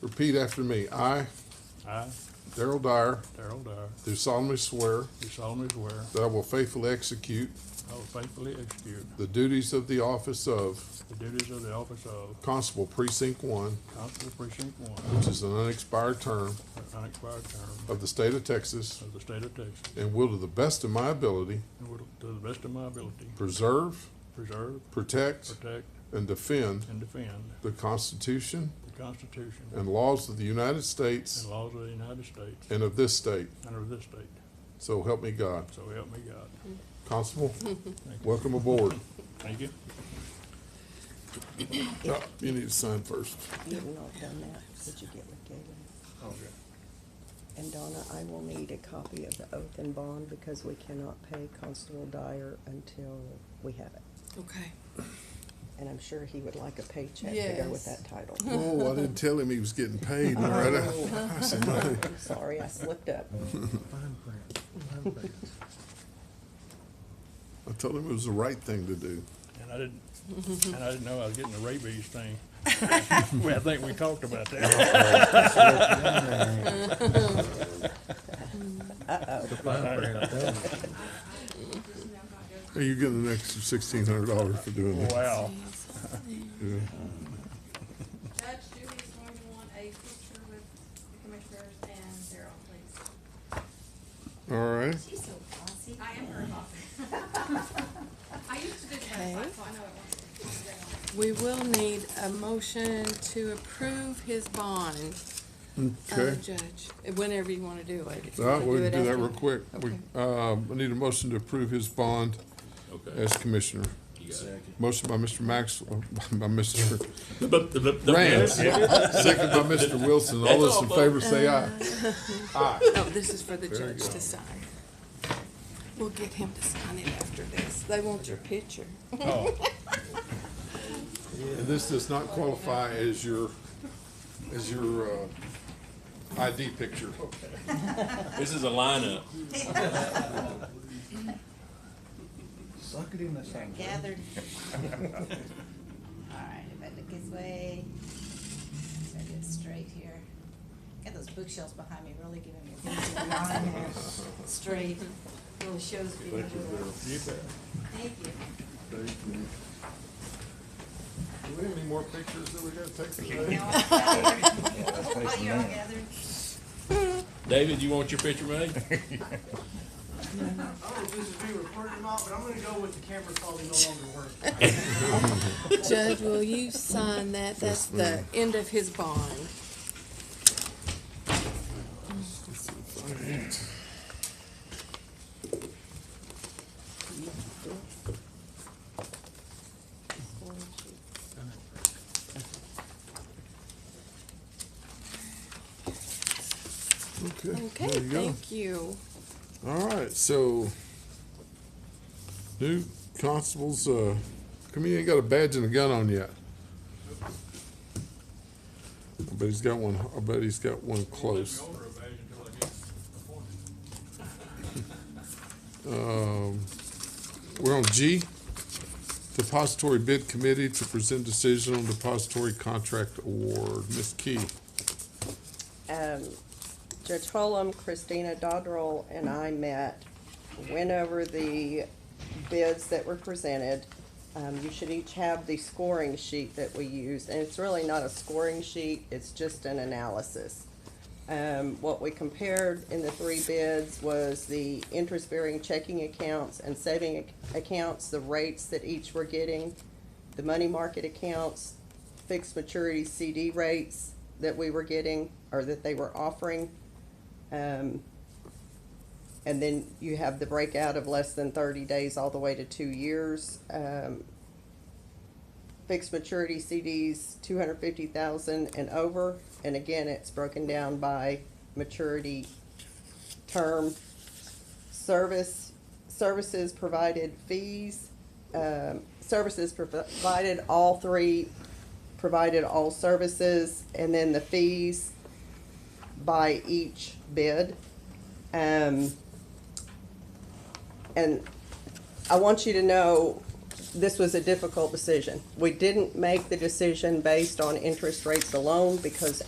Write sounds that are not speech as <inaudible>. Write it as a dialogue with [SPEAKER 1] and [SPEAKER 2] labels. [SPEAKER 1] Repeat after me. I,
[SPEAKER 2] I,
[SPEAKER 1] Daryl Dyer,
[SPEAKER 2] Darrell Dyer,
[SPEAKER 1] do solemnly swear
[SPEAKER 2] do solemnly swear
[SPEAKER 1] that I will faithfully execute
[SPEAKER 2] I will faithfully execute
[SPEAKER 1] the duties of the office of
[SPEAKER 2] the duties of the office of
[SPEAKER 1] Constable Precinct One,
[SPEAKER 2] Constable Precinct One,
[SPEAKER 1] which is an unexpired term
[SPEAKER 2] for an unexpired term
[SPEAKER 1] of the state of Texas,
[SPEAKER 2] of the state of Texas,
[SPEAKER 1] and will to the best of my ability
[SPEAKER 2] and will, to the best of my ability,
[SPEAKER 1] preserve,
[SPEAKER 2] preserve,
[SPEAKER 1] protect,
[SPEAKER 2] protect,
[SPEAKER 1] and defend
[SPEAKER 2] and defend
[SPEAKER 1] the Constitution
[SPEAKER 2] the Constitution
[SPEAKER 1] and laws of the United
[SPEAKER 2] and
[SPEAKER 1] States
[SPEAKER 2] laws of the United States
[SPEAKER 1] and of this state.
[SPEAKER 2] and of this state.
[SPEAKER 1] So help me God.
[SPEAKER 2] So help me God.
[SPEAKER 1] Constable, welcome aboard.
[SPEAKER 2] Thank you.
[SPEAKER 1] Uh, You need to sign first.
[SPEAKER 3] Getting all done now, did you get with Galen?
[SPEAKER 2] Okay.
[SPEAKER 3] And Donna, I will need a copy of the oath and bond because we cannot pay Constable Dyer until we have it.
[SPEAKER 4] Okay.
[SPEAKER 3] And I'm sure he would like a paycheck to go with
[SPEAKER 4] Yes.
[SPEAKER 3] that title.
[SPEAKER 1] Oh, I didn't tell him he was getting <laughs> paid, Loretta. I said, "No."
[SPEAKER 3] I'm sorry, I slipped up.
[SPEAKER 5] Fine print, fine print.
[SPEAKER 1] I told him it was the right thing to do.
[SPEAKER 2] And I didn't, and I didn't know I was getting the rabies thing. Well, I think we talked about <laughs> that.
[SPEAKER 5] The fine print, I tell you.
[SPEAKER 1] Are you getting an extra sixteen hundred dollars for doing that?
[SPEAKER 2] Wow.
[SPEAKER 1] Yeah.
[SPEAKER 6] Judge Dewey's going to want a picture with the commissioners and Daryl, please.
[SPEAKER 1] All right.
[SPEAKER 6] She's so bossy. I am her boss.
[SPEAKER 7] <laughs>
[SPEAKER 6] I used to do that, so I know it won't.
[SPEAKER 4] We will need a motion to approve his bond, uh,
[SPEAKER 1] Okay.
[SPEAKER 4] Judge, whenever you want to do it. If you
[SPEAKER 1] All right,
[SPEAKER 4] wanna
[SPEAKER 1] we can
[SPEAKER 4] it
[SPEAKER 1] do that
[SPEAKER 4] after-
[SPEAKER 1] real quick. We, um, I need a motion to approve his bond
[SPEAKER 8] Okay.
[SPEAKER 1] as commissioner. Motion by Mr. Maxwell, <laughs> by Mr. Rand,
[SPEAKER 8] Rams.
[SPEAKER 1] second by Mr. Wilson. All those in favor say aye.
[SPEAKER 4] No, this is for the
[SPEAKER 1] There you
[SPEAKER 4] judge
[SPEAKER 1] go.
[SPEAKER 4] to sign. We'll get him to sign it after this. They want your picture.
[SPEAKER 2] Oh.
[SPEAKER 1] And this does not qualify as your, as your, uh, ID picture.
[SPEAKER 8] This is a lineup.
[SPEAKER 5] Suck it in the sink.
[SPEAKER 7] gathered. All right, if I look his way, so I get straight here. Got those bookshelves behind me really giving me a good line there. Straight, really shows me.
[SPEAKER 2] You bet.
[SPEAKER 7] Thank you.
[SPEAKER 1] Do we have any more pictures that we gotta take today?
[SPEAKER 7] Now I'm gathered. While you're all gathered.
[SPEAKER 8] David, you want your picture made?
[SPEAKER 9] I don't know if this is being recorded or not, but I'm gonna go with the camera probably no longer working.
[SPEAKER 4] Judge, will you sign that? That's the end of his bond. Okay,
[SPEAKER 1] there you go.
[SPEAKER 4] thank you.
[SPEAKER 1] All right, so new constables, uh, come here, ain't got a badge and a gun on yet. I bet he's got one, I bet he's got one close. Um, we're on G, Depository Bid Committee to present decision on depository contract award. Ms. Key,
[SPEAKER 3] um, Judge Holm, Christina Dodrell, and I met, went over the bids that were presented. Um, you should each have the scoring sheet that we use, and it's really not a scoring sheet, it's just an analysis. Um, what we compared in the three bids was the interest-bearing checking accounts and saving ac- accounts, the rates that each were getting, the money market accounts, fixed maturity CD rates that we were getting, or that they were offering. Um, and then you have the breakout of less than thirty days all the way to two years. Um, fixed maturity CDs, two hundred fifty thousand and over, and again, it's broken down by maturity term. Service, services provided fees, um, services provided, all three provided all services, and then the fees by each bid. Um, and I want you to know, this was a difficult decision. We didn't make the decision based on interest rates alone because